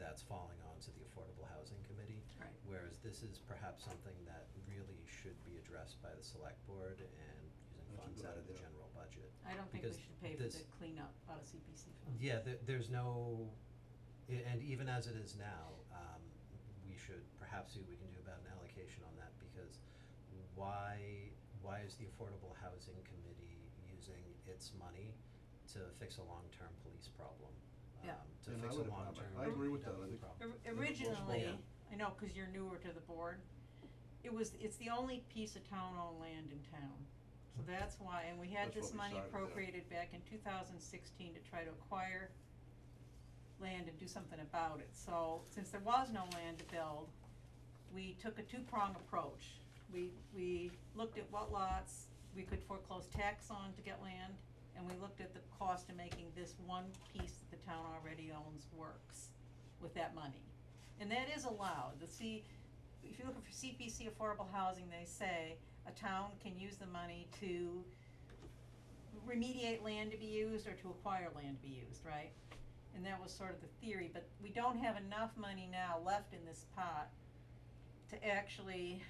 that's falling onto the Affordable Housing Committee. Right. Whereas this is perhaps something that really should be addressed by the select board and using That's a funds good out of the idea. general budget. I don't think we Because should pay for this- the cleanup out of CPC funds. Yeah, there, there's no, i- and even as it is now, um, we should perhaps see what we can do about an allocation on that, because why, why is the Affordable Housing Committee using its money to fix a long-term police problem? Yeah. um, To And I fix a would- I- long-term. I agree with that, I DPW think- problem? Or- Yeah. Originally, I know, cause you're newer to the board, it was, it's the only piece of town-owned land in town. Hmm. So that's why, and we had That's what this we money started, yeah. appropriated back in two thousand sixteen to try to acquire land and do something about it, so since there was no land to build, we took a two-prong approach. We, we looked at what lots we could foreclose tax on to get land, and we looked at the cost of making this one piece that the town already owns works with that money. And that is allowed, the C, if you're looking for CPC affordable housing, they say a town can use the money to remediate land to be used or to acquire land to be used, right? And that was sort of the theory, but we don't have enough money now left in this pot to actually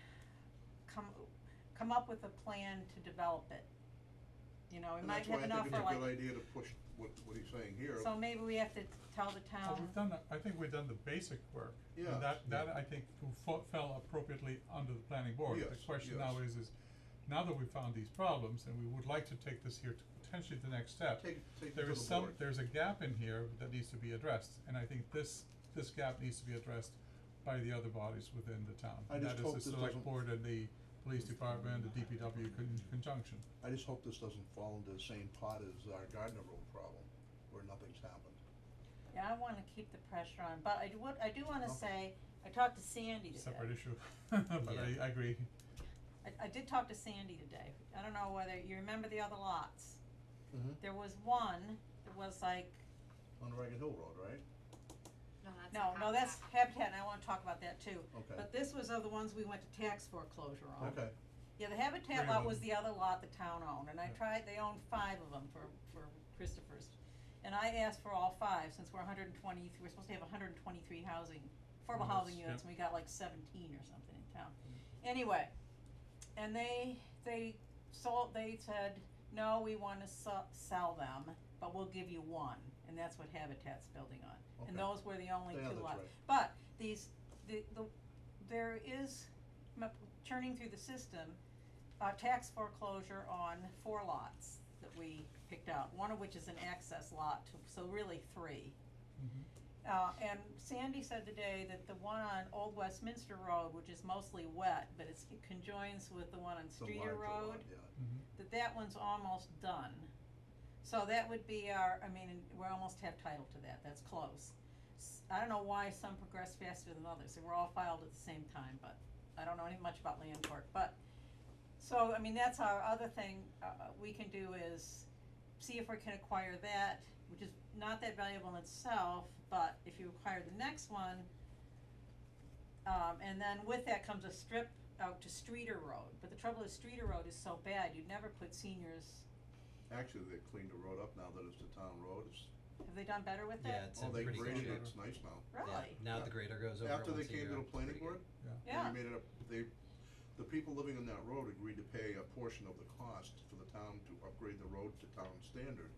come, come up with a plan to develop it. You know, we And might that's why have I think enough it's for a good like, idea to push what, what he's saying here. so maybe we have to tell the Well, town, we've done, the- I think we've done the basic work, Yeah. and that, that I think f- fo- fell appropriately under the planning board. Yes, The question yes. now is, is now that we've found these problems, and we would like to take this here to potentially the next step, Take, take it to there is the some, board. there's a gap in here that needs to be addressed, and I think this, this gap needs to be addressed by the other bodies within the town. I just hope And that is this the doesn't- select board and the police department, the DPW con- conjunction. I just hope this doesn't fall into the same pot as our Gardner Road problem, where nothing's happened. yeah, I wanna keep the pressure on, but I do, what, I do wanna Okay. say, I talked to Sandy today. Separate issue, but I, Yeah. I agree. I, I did talk to Sandy today, I don't know whether, you remember the other lots? Mm-hmm. There was one that was like, On Ragged Hill Road, right? No, that's. no, no, that's Habitat, and I wanna talk about that too. Okay. But um, this was of the ones we went to tax foreclosure on. Okay, Yeah, the Habitat Three lot of was them. the other lot the town owned, and I Yeah. tried, they owned five of them for, for Christopher's. And I asked for all five, since we're hundred and twenty, we're supposed to have hundred and twenty-three housing, affordable Units, housing yeah. units, and we got like seventeen or something in town. Anyway, and they, they sold, they said, no, we wanna sell, sell them, but we'll give you one, and that's what Habitat's building on. And Okay. those were the only Yeah, two that's lots. right. But these, the, the, there is, m- churning through the system, uh, tax foreclosure on four lots that we picked out, one of which is an access lot, to- so really three. Mhm. Uh, and Sandy said today that the one on Old Westminster Road, which is mostly wet, but it's, it conjoins with the one on the larger Streeter lot, Road, yeah. Mhm. that that one's almost done. So that would be our, I mean, we almost have title to that, that's close. S- I don't know why some progress faster than others, they were all filed at the same time, but I don't know any much about land court, but. So, I mean, that's our other thing, uh, uh, we can do is see if we can acquire that, which is not that valuable in itself, but if you acquire the next one, um, and then with that comes a strip out to Streeter Road, but the trouble is Streeter Road is so bad, you'd never put seniors, Actually, they cleaned the road up now that it's a town road, it's, have they done better with Yeah, that? it's oh, in they pretty good graded shape. it, it's nice now. Yeah, Really? now Yeah. the grader goes over After they once a came to year, the it's planning pretty good. board, Yeah. they made it up, they, the people living on that road agreed to pay a portion of the cost for the town to upgrade the road to town standard.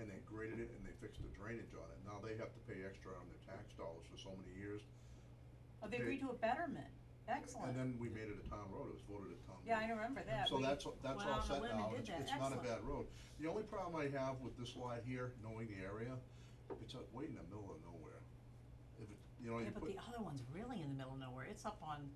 And they graded it and they fixed the drainage on it, now they have to pay extra on their tax dollars for so many years. Mm-hmm. Oh, they They- agreed to a betterment, And excellent, then we made it a town road, it was voted a town road. yeah, I remember that, So we that's, went that's all out on set a limb now, and did it's, that, it's not a bad road. The only problem I have with this lot here, knowing the area, it's uh, way in the middle of nowhere. If it, you know, Yeah, you but the put, other one's really in the middle of nowhere, it's up on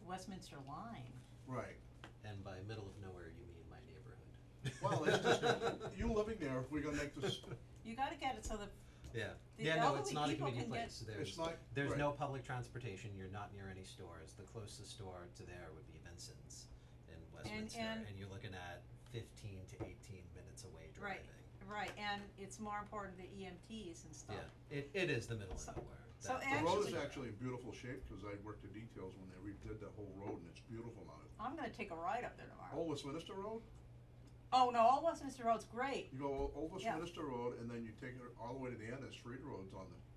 the Westminster line. right, And by middle of nowhere, you mean my neighborhood. well, it's just, you living there, we're gonna make this, You gotta get it so the, Yeah, The yeah, no, elderly it's not a people convenient can get- place, there's, It's not- there's right. no public transportation, you're not near any stores, the closest store to there would be Vincent's in Westminster, and- and you're looking at fifteen to eighteen minutes away Right. driving. right, and it's more important, the EMTs and stuff. Yeah, it, it is the middle of So- nowhere. so That's- the road is Actually- actually in beautiful shape, cause I worked the details when they redid that whole road and it's beautiful now. I'm gonna take a ride up there tomorrow. Old Westminster Road, Oh, no, Old Westminster Road's great, you go Old Yeah. Westminster Road and then you take it all the way to the end, and Street Road's on the,